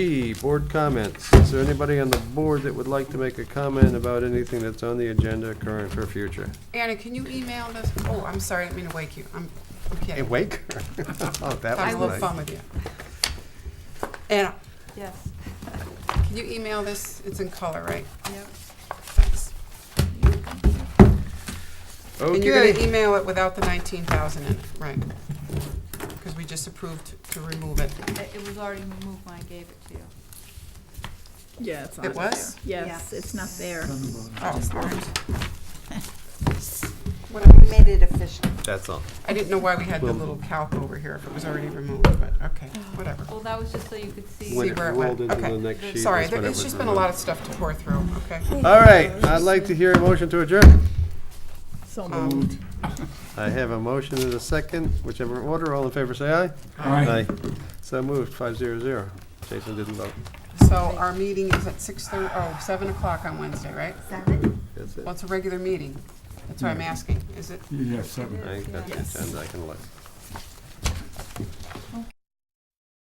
B, board comments. Is there anybody on the board that would like to make a comment about anything that's on the agenda, current or future? Anna, can you email this? Oh, I'm sorry, I didn't mean to wake you. I'm, I'm Hey, kidding. wake her. Oh, that I was love fun nice. with you. Anna, Yes, can you email this? It's in color, right? yep. Thanks. And you're gonna Okay, email it without the nineteen thousand in it, right? Because we just approved to remove it. It it was already removed when I gave it to you. Yeah, it's not. It was? Yes, it's not there. Oh, all right. We made it official. that's all. I didn't know why we had the Well- little calc over here if it was already removed, but okay, whatever. Well, that was just so you could see. When See it where it went. rolled into the Okay. next sheet. Sorry, that's there- when it it's was just been a removed. lot of stuff to pour through, okay? All right, I'd like to hear a motion to adjourn. So Um, moved. I have a motion and a second, whichever order. All in favor, say aye. Aye. So moved, five zero zero. Jason didn't vote. So our meeting is at six thirty, oh, seven o'clock on Wednesday, right? Seven? That's it. Well, it's a regular meeting. That's why I'm asking. Is it? Yeah, seven. I ain't got the agenda, I can look.